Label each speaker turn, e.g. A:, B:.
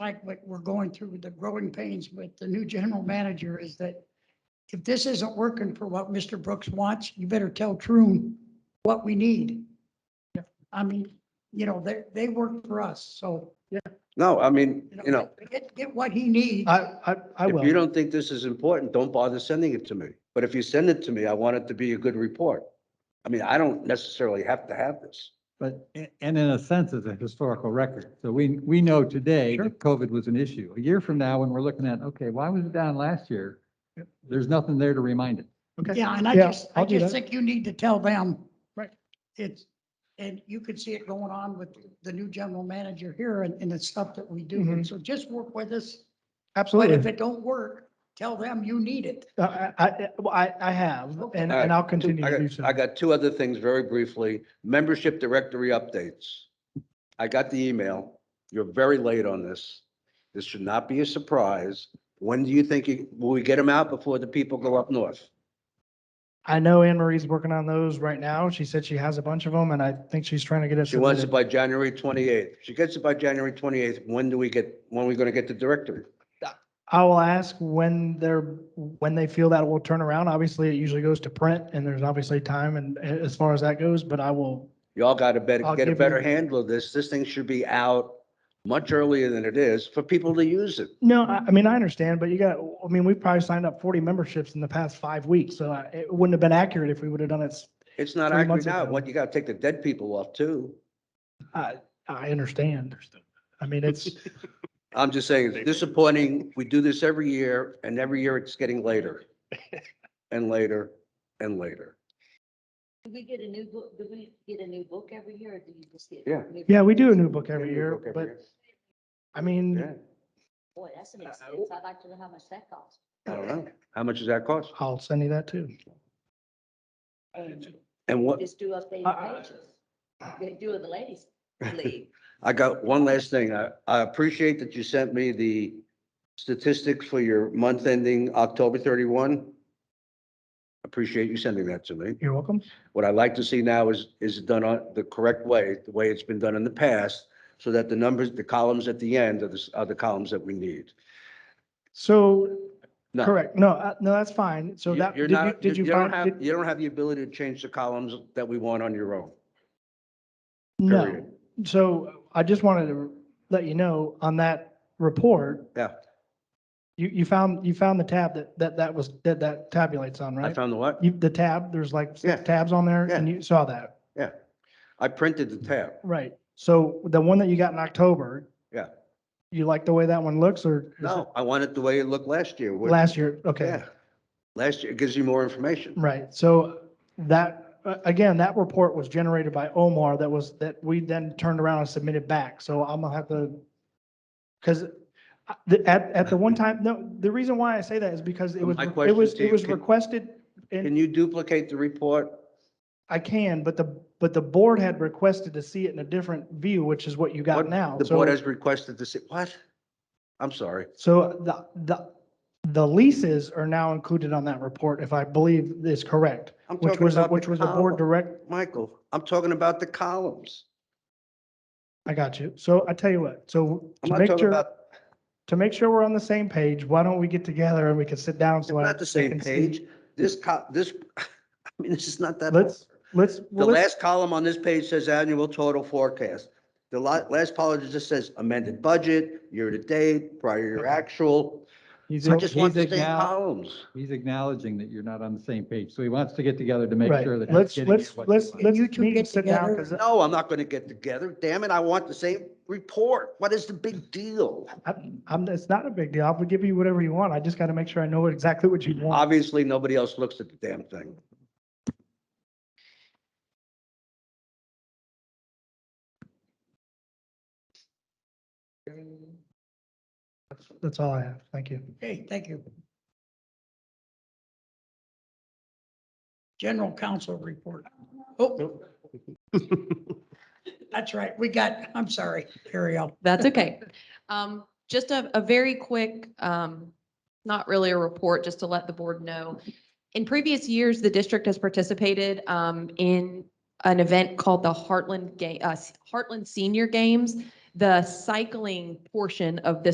A: like what we're going through with the growing pains with the new general manager is that if this isn't working for what Mr. Brooks wants, you better tell Troon what we need. I mean, you know, they, they work for us, so.
B: No, I mean, you know,
A: Get, get what he needs.
C: I, I, I
B: if you
C: will.
B: don't think this is important, don't bother sending it to me. But if you send it to me, I want it to be a good report. I mean, I don't necessarily have to have this.
D: But, a- and in a sense, it's a historical record. So we, we know today
C: Sure.
D: that COVID was an issue. A year from now, when we're looking at, okay, why was it down last year?
C: Yep.
D: There's nothing there to remind it.
C: Okay.
A: Yeah, and I
C: Yeah,
A: just, I
C: I'll do
A: just
C: that.
A: think you need to tell them.
C: Right.
A: It's, and you can see it going on with the new general manager here and, and the stuff that we do.
C: Mhm.
A: So just work with us. But if
C: Absolutely.
A: it don't work, tell them you need it.
C: I, I- I, well, I, I have, and,
B: All right.
C: and I'll continue
B: I
C: to do
B: got,
C: so.
B: I got two other things very briefly. Membership directory updates. I got the email. You're very late on this. This should not be a surprise. When do you think, you- will we get them out before the people go up north?
C: I know Anne Marie's working on those right now. She said she has a bunch of them and I think she's trying to get us.
B: She wants it by January 28th. She gets it by January 28th. When do we get, when are we going to get the directory?
C: I will ask when they're, when they feel that will turn around. Obviously, it usually goes to print and there's obviously time and a- as far as that goes, but I will,
B: Y'all got to better,
C: I'll
B: get a
C: give
B: better
C: you-
B: handle of this. This thing should be out much earlier than it is for people to use it.
C: no, I, I mean, I understand, but you got, I mean, we've probably signed up forty memberships in the past five weeks, so I- it wouldn't have been accurate if we would have done it. s-
B: It's not
C: Three
B: accurate
C: months
B: now.
C: ago.
B: What, you got to take the dead people off too.
C: I, I understand. I mean, it's,
B: I'm just saying, it's disappointing. We do this every year and every year it's getting later and later and later.
E: Do we get a new book, do we get a new book every year or do you just get?
B: Yeah.
E: new
C: yeah, we
E: books?
C: do a new book every year, but I mean,
B: Yeah,
E: Boy, that's an
C: Uh,
E: expense. I'd like to know how much that costs.
B: I don't know. How much does that cost?
C: I'll send you that too.
E: And
B: And what,
E: Just do updated
C: I-
E: pages. They do it the ladies league.
B: I got one last thing. I, I appreciate that you sent me the statistics for your month ending October 31. Appreciate you sending that to me.
C: You're welcome.
B: What I'd like to see now is, is it done on the correct way, the way it's been done in the past, so that the numbers, the columns at the end are the, s- are the columns that we need.
C: So,
B: No.
C: correct, no, uh, no, that's fine. So
B: You-
C: that,
B: You're
C: did you,
B: not, you
C: did
B: you
C: you
B: don't
C: find?
B: have,
C: did-
B: you don't have the ability to change the columns that we want on your own.
C: No,
B: period.
C: so I just wanted to let you know on that report.
B: Yeah.
C: You, you found, you found the tab that, that, that was, that, that tabulates on,
B: I
C: right?
B: found the what?
C: You, the tab, there's like
B: Yeah.
C: six tabs on there
B: Yeah.
C: and you saw that,
B: I printed the tab.
C: right? So the one that you got in October.
B: Yeah.
C: You like the way that one looks or? is
B: No, I want it the way it looked last year.
C: it
B: What-
C: Last year, okay.
B: Yeah. Last year, it gives you more information.
C: Right, so that, uh, again, that report was generated by Omar that was, that we then turned around and submitted back, so I'm gonna have to, because at, at the one time, no, the reason why I say that is because it was,
B: Um, My
C: it
B: question,
C: was, it
B: Steve,
C: was
B: can-
C: requested,
B: Can
C: and
B: you duplicate the report?
C: I can, but the, but the board had requested to see it in a different view, which is what you got
B: What
C: now.
B: The
C: So-
B: board has requested to see, what? I'm sorry.
C: So the, the, the leases are now included on that report, if I believe is correct,
B: I'm
C: which
B: talking
C: was,
B: about
C: which was the board
B: column.
C: direct,
B: Michael, I'm talking about the columns.
C: I got you. So I tell you what, so
B: I'm
C: to
B: not
C: make
B: talking
C: sure,
B: about-
C: to make sure we're on the same page, why don't we get together and we can sit down?
B: It's
C: so I-
B: not the
C: I
B: same
C: can see-
B: page. This co, this, I mean, this is not that.
C: Let's, let's,
B: The
C: well, let's-
B: last column on this page says annual total forecast. The la- last column just says amended budget, year-to-date, prior year
C: Okay.
B: actual.
D: He's
B: I just want the same
D: acknow-
B: columns.
D: He's acknowledging that you're not on the same page. So he wants to get together to make
C: right,
D: sure that. he's
C: let's,
D: getting at
C: let's,
D: what he
C: let's,
D: wants.
C: let's
A: You two
C: meet and
A: get
C: sit down,
A: together.
C: because
B: No, I'm not going to get together. Damn it, I want the same report. What is the big deal?
C: I'm, it's not a big deal. I'll give you whatever you want. I just got to make sure I know exactly what you want.
B: Obviously, nobody else looks at the damn thing.
C: That's all I have. Thank you.
A: Okay, thank you. General counsel report. Oh. That's right, we got, I'm sorry, carry on.
F: That's okay. Um, just a, a very quick, um, not really a report, just to let the board know. In previous years, the district has participated, um, in an event called the Heartland Ga, uh, Heartland Senior Games. The cycling portion of this